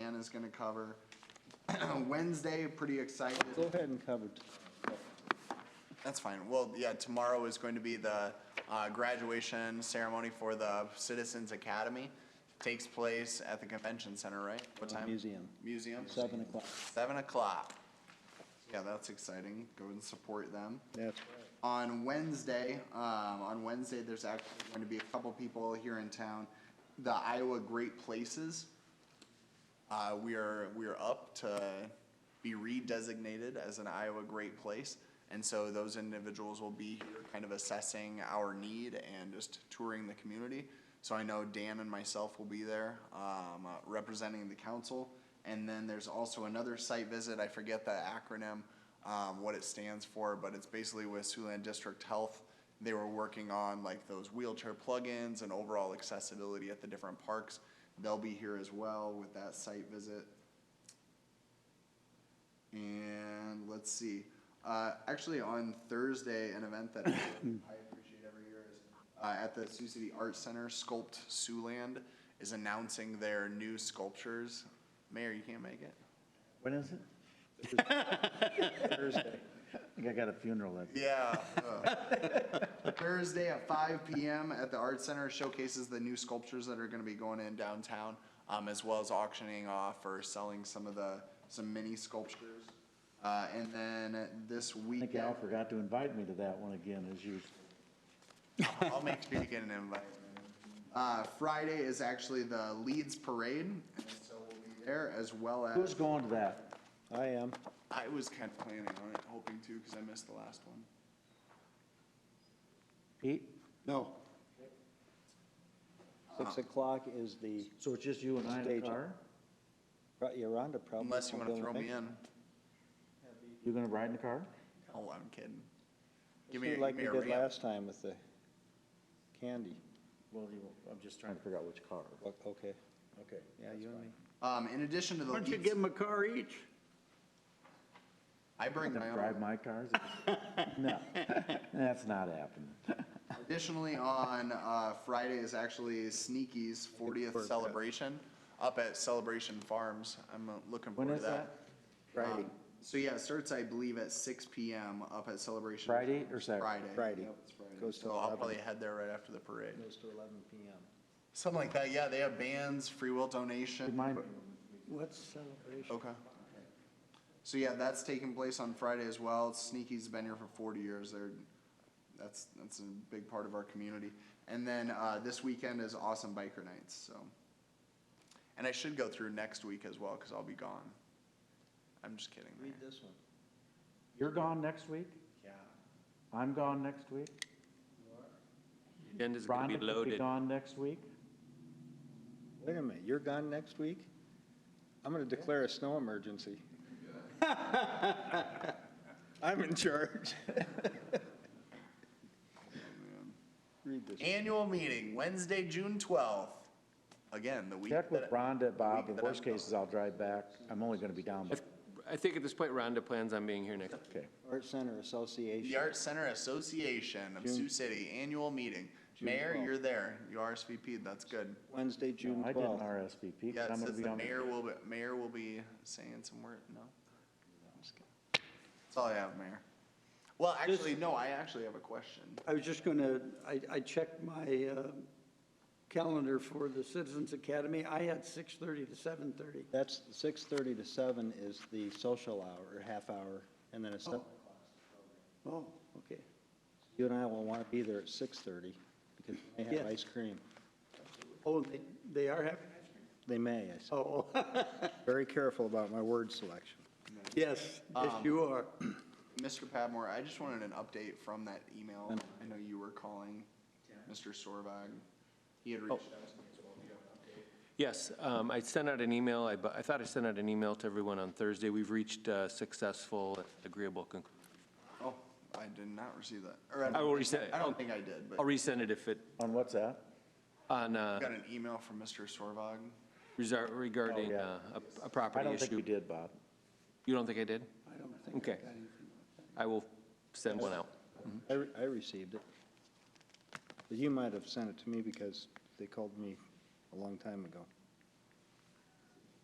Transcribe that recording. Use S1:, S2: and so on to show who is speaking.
S1: Deanna's gonna cover. Wednesday, pretty excited.
S2: Go ahead and cover, t-
S1: That's fine. Well, yeah, tomorrow is going to be the uh, graduation ceremony for the Citizens Academy. Takes place at the convention center, right? What time?
S2: museum,
S1: Museum?
S2: seven o'clock.
S1: Seven o'clock. Yeah, that's exciting. Go and support them.
S2: That's
S1: On Wednesday, um, on Wednesday, there's actually going to be a couple people here in town. The Iowa Great Places. Uh, we are, we are up to be redesignated as an Iowa Great Place. And so those individuals will be here kind of assessing our need and just touring the community. So I know Dan and myself will be there, um, uh, representing the council. And then there's also another site visit, I forget the acronym, um, what it stands for, but it's basically with Siouxland District Health. They were working on like those wheelchair plugins and overall accessibility at the different parks. They'll be here as well with that site visit. And let's see, uh, actually on Thursday, an event that I appreciate every year is, uh, at the Sioux City Art Center, Sculpt Siouxland is announcing their new sculptures. Mayor, you can't make it?
S3: When is it?
S2: Thursday.
S3: I think I got a funeral that.
S1: Yeah. ugh. Thursday at five PM at the Art Center showcases the new sculptures that are gonna be going in downtown, um, as well as auctioning off or selling some of the, some mini sculptures. Uh, and then this
S3: I
S1: weekend.
S3: think Al forgot to invite me to that one again, as you,
S1: I'll make sure you get an invite. Uh, Friday is actually the Leeds Parade, and so we'll be there as well
S3: who's
S1: as,
S3: going to that?
S2: I am,
S1: I was kind of planning on it, hoping to, because I missed the last one.
S3: Pete?
S4: No,
S2: six o'clock is the,
S3: So it's just you and I in the
S2: Stage.
S3: car?
S2: right, Yolanda probably.
S1: Unless you
S2: won't
S1: want
S2: be
S1: to
S2: able
S1: throw me
S2: make
S1: in.
S3: You're gonna ride in the car?
S1: Oh, I'm kidding.
S2: it.
S1: Give me, a-
S2: Do Like
S1: give me
S2: we
S1: a
S2: did
S1: ramp.
S2: last time with the candy.
S3: Well, you, I'm just trying to figure out which car.
S2: O- Okay.
S3: Okay.
S2: Yeah, you and me.
S1: Um, in addition to the
S5: Why don't you
S1: Leeds-
S5: give them a car each?
S1: I bring my
S3: Drive
S1: own.
S3: my cars? No, that's not happening.
S1: Additionally, on uh, Friday is actually Sneaky's 40th celebration up at Celebration Farms. I'm uh, looking
S3: When
S1: forward
S3: is
S1: to that.
S3: that?
S2: Friday,
S1: Um, So yeah, it starts, I believe, at 6 PM up at Celebration.
S3: Friday or Saturday?
S1: Friday.
S2: Friday.
S1: Yep, it's Friday.
S2: Goes to
S1: So I'll
S2: 11.
S1: probably head there right after the parade.
S2: goes to eleven PM.
S1: Something like that, yeah, they have bands, free will
S3: Good
S1: donation.
S3: mind.
S5: What's celebration?
S1: Okay. So yeah, that's taking place on Friday as well. Sneaky's been here for forty years. They're, that's, that's a big part of our community. And then, uh, this weekend is awesome biker nights, so. And I should go through next week as well, cause I'll be gone. I'm just kidding.
S2: Read
S1: Mayor.
S2: this one.
S3: You're gone next week?
S2: Yeah.
S3: I'm gone next week?
S6: Agenda's gonna
S3: Rhonda
S6: be
S3: could be
S6: loaded.
S3: gone next week?
S2: Wait a minute, you're gone next week? I'm gonna declare a snow emergency. I'm in charge.
S1: Oh,
S2: Read this.
S1: Annual meeting, Wednesday, June twelfth. Again, the week.
S3: Check with
S1: that-
S3: Rhonda, Bob,
S1: week
S3: in
S1: that
S3: worst
S1: I'm gone.
S3: cases, I'll drive back. I'm only gonna be down, by-
S6: I think at this point Rhonda plans on being here next.
S3: okay.
S2: Art Center Association.
S1: The Art Center Association of Sioux City Annual Meeting. Mayor, you're there. You RSVP'd, that's good.
S2: Wednesday, June
S3: No, I didn't
S2: twelfth.
S3: RSVP,
S1: Yeah, it
S3: because I'm gonna
S1: says
S3: be
S1: the
S3: on, the-
S1: mayor will, be mayor will be saying some word, no? I'm just kidding. That's all I have, Mayor. Well, actually, no, I actually have a question.
S5: I was just gonna, I, I checked my, uh, calendar for the Citizens Academy. I had six thirty to seven thirty.
S2: That's six thirty to seven is the social hour, or half hour, and then it's,
S5: Oh, okay.
S2: you and I will want to be there at six thirty, because they have
S5: Yes.
S2: ice cream.
S5: Oh, they, they are having,
S2: They may, I said.
S5: oh,
S2: Very careful about my word selection.
S5: yes, yes, you are.
S1: Mr. Padmore, I just wanted an update from that email. I know you were calling Mr. Sorvag. He had reached out to me as well. Do you have an update?
S6: Yes, um, I sent out an email, I, bu- I thought I sent out an email to everyone on Thursday. We've reached a successful, agreeable conclusion.
S1: Oh, I did not receive that. Or I
S6: I will
S1: don't,
S6: resend it.
S1: I don't think I did, but
S6: I'll resend it if it,
S3: on what's that?
S6: on,
S1: I
S6: uh,
S1: got an email from Mr. Sorvag.
S6: resar- regarding
S3: Oh, yeah.
S6: uh, a- a
S3: I
S6: property
S3: don't think
S6: issue.
S3: we did, Bob.
S6: You don't think I did?
S5: I don't think.
S6: Okay. I will send one out.
S2: I, re- I received it. But you might have sent it to me because they called me a long time ago.